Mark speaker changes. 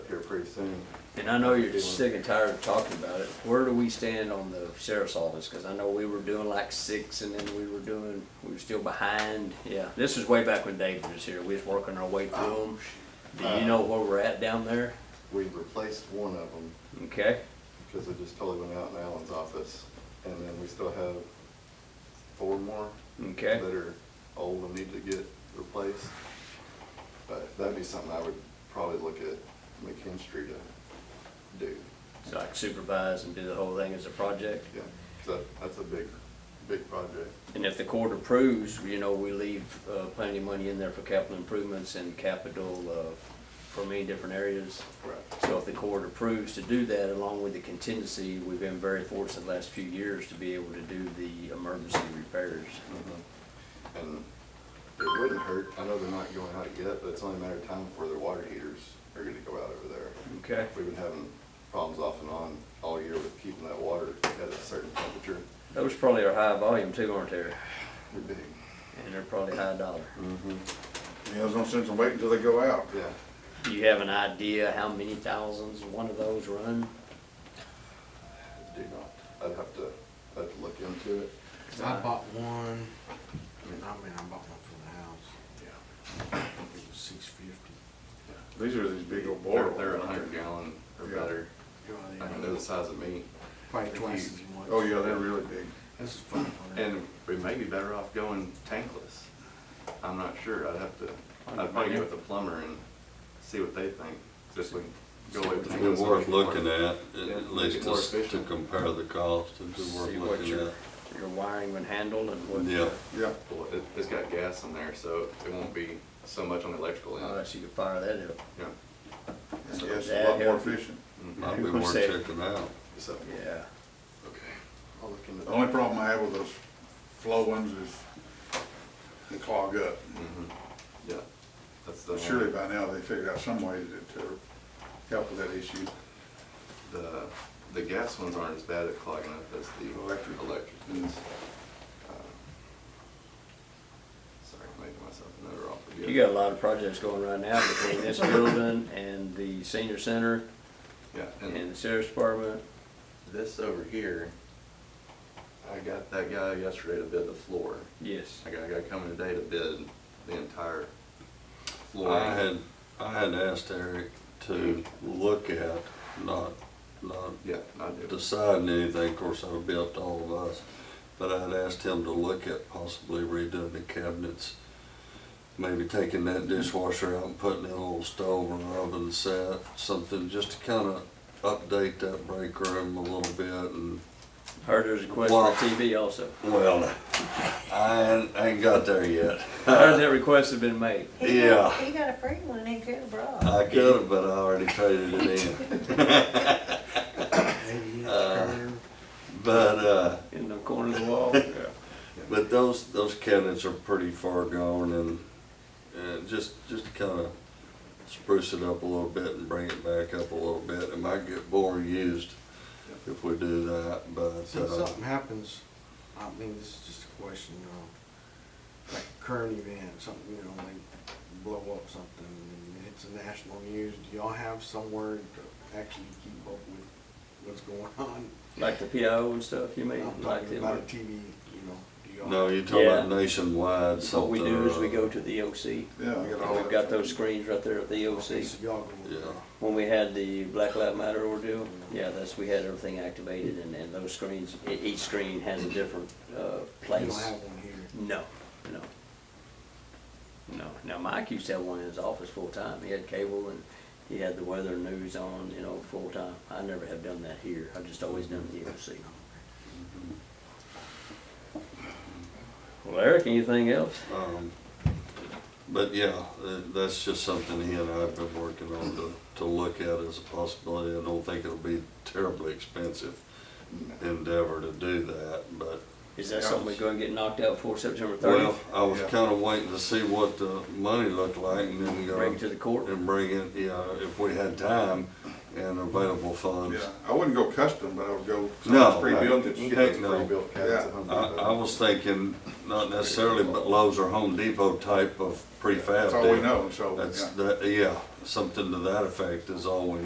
Speaker 1: soon.
Speaker 2: And I know you're sick and tired of talking about it. Where do we stand on the sheriff's office? Because I know we were doing like six and then we were doing, we were still behind. Yeah, this is way back when David was here. We was working our way through them. Oh, Do you know where we're at down there?
Speaker 1: Um, uh, We replaced one of them
Speaker 2: Okay,
Speaker 1: because it just totally went out in Alan's office. And then we still have four more
Speaker 2: okay.
Speaker 1: that are old and need to get replaced. But that'd be something I would probably look at McKinstry to do.
Speaker 2: So I can supervise and do the whole thing as a project.
Speaker 1: Yeah, 'cause that, that's a big, big project.
Speaker 2: And if the court approves, you know, we leave uh, plenty of money in there for capital improvements and capital uh, for many different areas.
Speaker 1: Right.
Speaker 2: So if the court approves to do that, along with the contingency, we've been very fortunate the last few years to be able to do the emergency repairs.
Speaker 1: Uh-huh. And it wouldn't hurt, I know they're not going out yet, but it's only a matter of time before their water heaters are gonna go out over there.
Speaker 2: Okay.
Speaker 1: We've been having problems off and on all year with keeping that water at a certain temperature.
Speaker 2: Those probably are high volume too, aren't they?
Speaker 1: They're big.
Speaker 2: And they're probably high dollar.
Speaker 3: Yeah, there's no sense in waiting until they go out.
Speaker 1: Yeah,
Speaker 2: Do you have an idea how many thousands one of those run?
Speaker 1: I do not. I'd have to, I'd have to look into it.
Speaker 4: Cause I bought one, I mean, I mean, I bought one for the house. Yeah. It was six fifty.
Speaker 3: These are these big old
Speaker 1: They're,
Speaker 3: boilers.
Speaker 1: they're a hundred gallon or
Speaker 3: Yeah.
Speaker 1: better. I mean, they're the size of me.
Speaker 4: Probably twice as much.
Speaker 3: Oh, yeah, they're really big.
Speaker 4: This is five hundred.
Speaker 1: And we may be better off going tankless. I'm not sure. I'd have to, I'd probably get with the plumber and see what they think. Just we can go away
Speaker 5: It's
Speaker 1: from
Speaker 5: been
Speaker 1: tankless.
Speaker 5: worth looking at,
Speaker 1: Yeah,
Speaker 5: at
Speaker 1: make it
Speaker 5: least
Speaker 1: more
Speaker 5: to to
Speaker 1: efficient.
Speaker 5: compare the cost, it's been
Speaker 2: See
Speaker 5: worth
Speaker 2: what
Speaker 5: looking
Speaker 2: your,
Speaker 5: at.
Speaker 2: your wiring would handle and what.
Speaker 5: Yeah,
Speaker 3: Yeah.
Speaker 1: Well, it, it's got gas in there, so it won't be so much on the electrical end.
Speaker 2: Unless you could fire that up.
Speaker 1: Yeah.
Speaker 3: Yes, it's a lot more efficient.
Speaker 5: might be worth
Speaker 2: Say-
Speaker 5: checking out.
Speaker 1: So,
Speaker 2: Yeah.
Speaker 1: okay. I'll look into
Speaker 3: The
Speaker 1: that.
Speaker 3: only problem I have with those flow ones is they clog up.
Speaker 1: Mhm. Yeah, that's the.
Speaker 3: But surely by now they figured out some way to, to help with that issue.
Speaker 1: The, the gas ones aren't as bad at clogging up as the.
Speaker 3: Electric.
Speaker 1: Electric is. Uh, Sorry, I'm making myself another offer.
Speaker 2: You got a lot of projects going right now between this building and the senior center
Speaker 1: Yeah,
Speaker 2: and
Speaker 1: and
Speaker 2: the sheriff's department.
Speaker 1: this over here, I got that guy yesterday to bid the floor.
Speaker 2: Yes.
Speaker 1: I got a guy coming today to bid the entire floor.
Speaker 5: I had, I had asked Eric to look at, not, not
Speaker 1: Yeah, I do.
Speaker 5: deciding anything, of course, that'll be up to all of us. But I'd asked him to look at possibly redoing the cabinets, maybe taking that dishwasher out and putting in a little stove or oven set, something, just to kind of update that break room a little bit and
Speaker 2: Heard there's a request for a TV also.
Speaker 5: Well, I ain't, I ain't got there yet.
Speaker 2: I heard that request had been made.
Speaker 6: He
Speaker 5: Yeah.
Speaker 6: got- He got a free one, he could have brought.
Speaker 5: I could have, but I already traded it in.
Speaker 4: Eighty inch
Speaker 5: uh,
Speaker 4: curve.
Speaker 5: But, uh,
Speaker 2: In the corner of the wall.
Speaker 5: but those, those cabinets are pretty far gone and, and just, just to kind of spruce it up a little bit and bring it back up a little bit. It might get more used if we do that, but,
Speaker 4: So if
Speaker 5: uh,
Speaker 4: something happens, I mean, this is just a question, you know, like a current event, something, you know, they blow up something and it hits the national news, do y'all have somewhere to actually keep up with what's going on?
Speaker 2: Like the PIO and stuff, you mean?
Speaker 4: I'm
Speaker 2: Like
Speaker 4: talking about a
Speaker 2: them.
Speaker 4: TV, you know, do y'all?
Speaker 5: no, you're talking about
Speaker 2: Yeah.
Speaker 5: nationwide
Speaker 2: What
Speaker 5: something. uh,
Speaker 2: we do is
Speaker 5: or
Speaker 2: we go
Speaker 5: other.
Speaker 2: to the E OC.
Speaker 3: Yeah, we got all
Speaker 2: We've
Speaker 3: that.
Speaker 2: got those screens right there at the E
Speaker 4: Okay,
Speaker 2: OC.
Speaker 4: so y'all go with,
Speaker 5: Yeah.
Speaker 4: uh,
Speaker 2: When we had the Black Lives Matter ordeal, yeah, that's, we had everything activated and, and those screens, e- each screen has a different, uh,
Speaker 4: you don't
Speaker 2: place.
Speaker 4: have one here.
Speaker 2: No, no. No. Now Mike used to have one in his office full time. He had cable and he had the weather and news on, you know, full time. I never have done that here. I've just always done the E EOC. Well, Eric, anything else?
Speaker 5: Um, But yeah, tha- that's just something he and I have been working on to, to look at as a possibility. I don't think it'll be terribly expensive endeavor to do that, but,
Speaker 2: Is that something we're gonna get knocked out before September
Speaker 5: well,
Speaker 2: thirtieth?
Speaker 5: I was
Speaker 3: Yeah.
Speaker 5: kinda waiting to see what the money looked like and then go.
Speaker 2: Bring it to the court?
Speaker 5: And bring it, you know, if we had time and available funds.
Speaker 3: Yeah, I wouldn't go custom, but I would go. something
Speaker 5: Um, No,
Speaker 3: that's Pre-built that's
Speaker 1: You can
Speaker 5: I-
Speaker 1: get
Speaker 5: Heck
Speaker 1: those
Speaker 5: no.
Speaker 1: pre-built cabinets at Home
Speaker 5: I,
Speaker 1: Depot.
Speaker 5: I was thinking, not necessarily, but Lowe's or Home Depot type of prefab.
Speaker 3: That's all we
Speaker 5: deal.
Speaker 3: know, so.
Speaker 5: That's,
Speaker 3: yeah.
Speaker 5: that, yeah, something to that effect is all we